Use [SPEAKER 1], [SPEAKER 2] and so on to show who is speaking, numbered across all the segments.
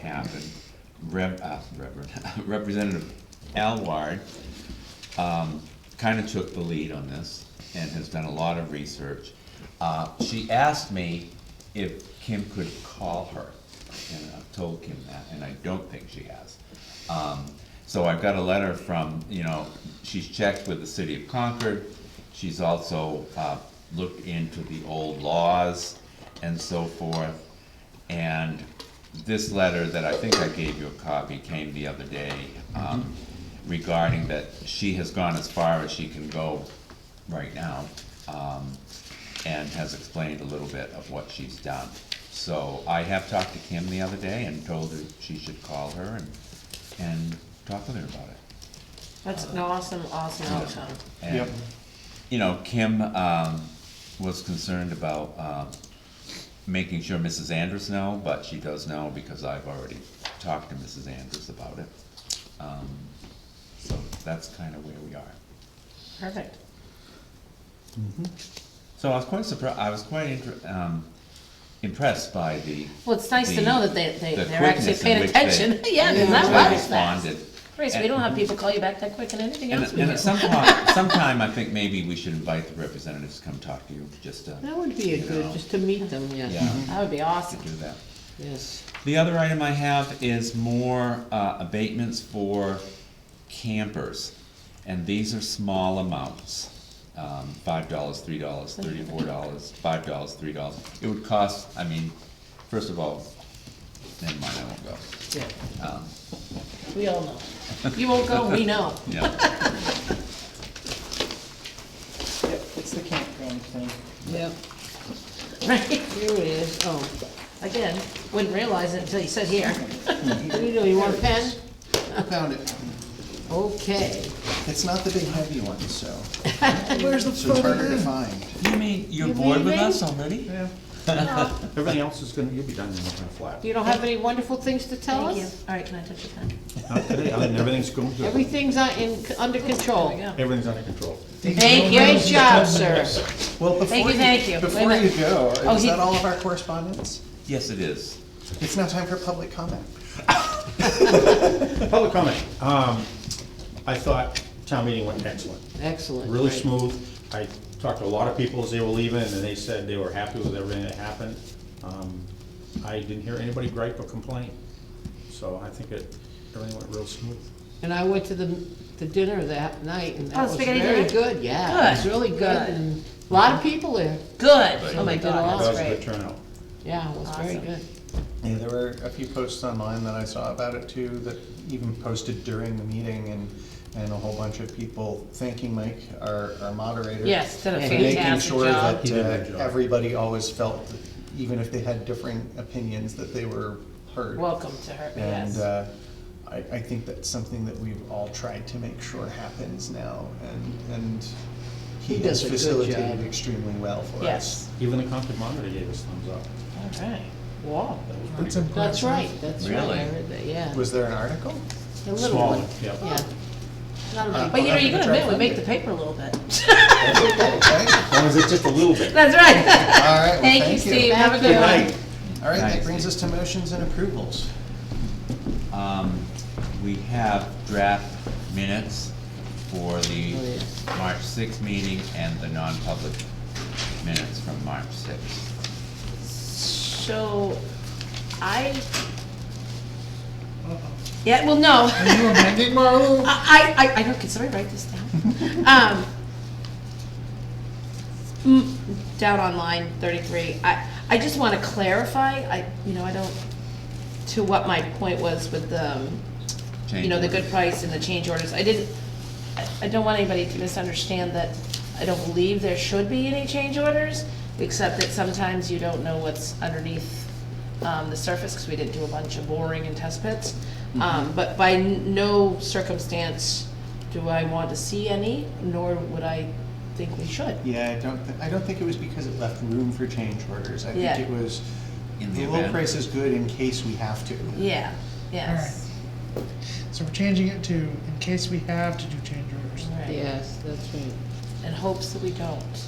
[SPEAKER 1] happen, Rep, uh, Reverend, Representative Alward, um, kinda took the lead on this and has done a lot of research. Uh, she asked me if Kim could call her, and I've told Kim that, and I don't think she has. Um, so I've got a letter from, you know, she's checked with the city of Concord, she's also, uh, looked into the old laws and so forth. And this letter that I think I gave you a copy came the other day, um, regarding that she has gone as far as she can go right now, um, and has explained a little bit of what she's done. So I have talked to Kim the other day and told her she should call her and, and talk with her about it.
[SPEAKER 2] That's an awesome, awesome outcome.
[SPEAKER 1] And,
[SPEAKER 3] Yep.
[SPEAKER 1] you know, Kim, um, was concerned about, um, making sure Mrs. Andrews know, but she does know because I've already talked to Mrs. Andrews about it. Um, So that's kinda where we are.
[SPEAKER 2] Perfect.
[SPEAKER 1] So I was quite surprised, I was quite inter- um, impressed by the.
[SPEAKER 2] Well, it's nice to
[SPEAKER 1] the-
[SPEAKER 2] know that they, they,
[SPEAKER 1] the
[SPEAKER 2] they're actually
[SPEAKER 1] quickness in
[SPEAKER 2] paying
[SPEAKER 1] which they-
[SPEAKER 2] attention. Yeah,
[SPEAKER 1] which
[SPEAKER 2] because
[SPEAKER 1] they
[SPEAKER 2] that was fast.
[SPEAKER 1] responded.
[SPEAKER 2] Grace, we
[SPEAKER 1] And-
[SPEAKER 2] don't have people call you back that quick in anything
[SPEAKER 1] And,
[SPEAKER 2] else we do.
[SPEAKER 1] and at some point, sometime, I think maybe we should invite the representatives to come talk to you, just to,
[SPEAKER 4] That would be a
[SPEAKER 1] You know.
[SPEAKER 4] good, just to meet them, yes,
[SPEAKER 1] yeah,
[SPEAKER 2] That would be
[SPEAKER 1] to
[SPEAKER 2] awesome.
[SPEAKER 1] do that.
[SPEAKER 4] yes.
[SPEAKER 1] The other item I have is more uh, abatements for campers, and these are small amounts. Um, Five dollars, three dollars, thirty-four dollars, five dollars, three dollars. It would cost, I mean, first of all, never mind, I won't go.
[SPEAKER 2] Yeah.
[SPEAKER 1] Um,
[SPEAKER 2] We all know. You won't go, we know.
[SPEAKER 1] No,
[SPEAKER 3] Yep, it's the campground thing.
[SPEAKER 4] Yep,
[SPEAKER 2] Right?
[SPEAKER 4] here it is, oh,
[SPEAKER 2] Again, wouldn't realize it until you sit here.
[SPEAKER 4] you know, you want a pen?
[SPEAKER 3] I found it.
[SPEAKER 4] Okay,
[SPEAKER 3] It's not the big heavy one, so
[SPEAKER 4] where's the
[SPEAKER 3] it's harder to find.
[SPEAKER 1] you mean, you're bored with us already?
[SPEAKER 3] Yeah.
[SPEAKER 5] Everything else is gonna, you'll be done in a flat.
[SPEAKER 4] You don't have any wonderful things to tell
[SPEAKER 2] Thank you.
[SPEAKER 4] us?
[SPEAKER 2] All right, can I touch your pen?
[SPEAKER 5] Not today, other than everything's going to,
[SPEAKER 4] Everything's on, in, under
[SPEAKER 2] There
[SPEAKER 4] control.
[SPEAKER 2] we go.
[SPEAKER 5] everything's under control.
[SPEAKER 2] Thank
[SPEAKER 4] Great
[SPEAKER 2] you.
[SPEAKER 4] job, sir.
[SPEAKER 3] Well, before
[SPEAKER 2] Thank you, thank you. Wait a
[SPEAKER 3] Before you
[SPEAKER 2] minute.
[SPEAKER 3] go,
[SPEAKER 2] Oh,
[SPEAKER 3] is
[SPEAKER 2] he-
[SPEAKER 3] that all of our correspondence?
[SPEAKER 1] Yes, it is.
[SPEAKER 3] It's now time for public comment.
[SPEAKER 5] Public comment, um, I thought town meeting went excellent,
[SPEAKER 4] Excellent.
[SPEAKER 5] really
[SPEAKER 4] right.
[SPEAKER 5] smooth. I talked to a lot of people as they were leaving, and they said they were happy with everything that happened. Um, I didn't hear anybody gripe or complain, so I think it, everything went real smooth.
[SPEAKER 4] And I went to the, the dinner that night, and
[SPEAKER 2] Oh,
[SPEAKER 4] that was
[SPEAKER 2] spaghetti
[SPEAKER 4] very
[SPEAKER 2] dinner?
[SPEAKER 4] good, yeah, it was
[SPEAKER 2] Good,
[SPEAKER 4] really good,
[SPEAKER 2] good.
[SPEAKER 4] and a lot of people there,
[SPEAKER 2] Good. Oh
[SPEAKER 4] We
[SPEAKER 2] my
[SPEAKER 4] did a lot.
[SPEAKER 2] God,
[SPEAKER 5] That was
[SPEAKER 2] that's
[SPEAKER 5] a good
[SPEAKER 2] great.
[SPEAKER 5] turnout.
[SPEAKER 4] yeah, it was very
[SPEAKER 2] Awesome.
[SPEAKER 4] good.
[SPEAKER 3] Yeah, there were a few posts online that I saw about it too, that even posted during the meeting and, and a whole bunch of people thanking Mike, our, our moderator.
[SPEAKER 2] Yes, did a
[SPEAKER 3] for
[SPEAKER 2] fantastic job.
[SPEAKER 3] Making
[SPEAKER 5] He
[SPEAKER 3] sure
[SPEAKER 5] did a
[SPEAKER 3] that
[SPEAKER 5] good
[SPEAKER 3] uh,
[SPEAKER 5] job.
[SPEAKER 3] everybody always felt, that even if they had differing opinions, that they were heard.
[SPEAKER 2] Welcome to her,
[SPEAKER 3] And
[SPEAKER 2] yes.
[SPEAKER 3] uh, I, I think that's something that we've all tried to make sure happens now, and, and he
[SPEAKER 4] He
[SPEAKER 3] has
[SPEAKER 4] does a good
[SPEAKER 3] facilitated
[SPEAKER 4] job.
[SPEAKER 3] extremely well for
[SPEAKER 2] Yes.
[SPEAKER 3] us.
[SPEAKER 5] Even the Concord monitor gave us thumbs up.
[SPEAKER 2] All right. Wow.
[SPEAKER 5] That was pretty
[SPEAKER 3] That's
[SPEAKER 5] good.
[SPEAKER 3] important.
[SPEAKER 4] That's right, that's right,
[SPEAKER 1] Really?
[SPEAKER 4] I heard that, yeah,
[SPEAKER 3] Was there an article?
[SPEAKER 4] the little
[SPEAKER 5] Small
[SPEAKER 4] one,
[SPEAKER 5] one, yeah.
[SPEAKER 4] yeah. Not a
[SPEAKER 3] Uh,
[SPEAKER 4] big
[SPEAKER 2] But you know,
[SPEAKER 3] I'll
[SPEAKER 2] you can
[SPEAKER 3] have to
[SPEAKER 2] admit,
[SPEAKER 3] try
[SPEAKER 2] we
[SPEAKER 3] to
[SPEAKER 2] make
[SPEAKER 3] find
[SPEAKER 2] the
[SPEAKER 3] it.
[SPEAKER 2] paper a little bit.
[SPEAKER 3] That's okay, right?
[SPEAKER 5] As long as it's just a little bit.
[SPEAKER 2] That's right.
[SPEAKER 3] All right, well,
[SPEAKER 2] Thank you, Steve. Have a good
[SPEAKER 4] Thank
[SPEAKER 2] one.
[SPEAKER 4] you.
[SPEAKER 3] All right,
[SPEAKER 1] Thanks,
[SPEAKER 3] that brings us to motions and approvals.
[SPEAKER 1] Um, we have draft minutes for the
[SPEAKER 4] Oh,
[SPEAKER 1] March sixth meeting and the non-public minutes from March sixth.
[SPEAKER 2] So, I. Yeah, well, no.
[SPEAKER 3] Uh-huh. you amending, Marlo?
[SPEAKER 2] I, I, I know, can somebody write this down? Um, mm, Down on line thirty-three, I, I just wanna clarify, I, you know, I don't, to what my point was with the, um, you
[SPEAKER 1] Change
[SPEAKER 2] know, the
[SPEAKER 1] orders.
[SPEAKER 2] good price and the change orders, I didn't, I, I don't want anybody to misunderstand that I don't believe there should be any change orders, except that sometimes you don't know what's underneath, um, the surface, cause we didn't do a bunch of boring and test pits. Um, but by n- no circumstance do I want to see any, nor would I think we should.
[SPEAKER 3] Yeah, I don't, thi- I don't think it was because it left room for change orders. I
[SPEAKER 2] Yeah.
[SPEAKER 3] think it was,
[SPEAKER 1] In
[SPEAKER 3] the
[SPEAKER 1] the
[SPEAKER 3] low
[SPEAKER 1] event.
[SPEAKER 3] price is good in case we have to.
[SPEAKER 2] Yeah, yes.
[SPEAKER 6] So we're changing it to, in case we have to do change orders.
[SPEAKER 2] Right.
[SPEAKER 4] Yes, that's right,
[SPEAKER 2] In hopes that we don't.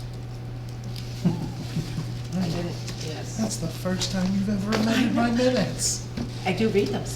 [SPEAKER 2] I didn't, yes.
[SPEAKER 6] That's the first time you've ever amended my minutes.
[SPEAKER 2] I do read them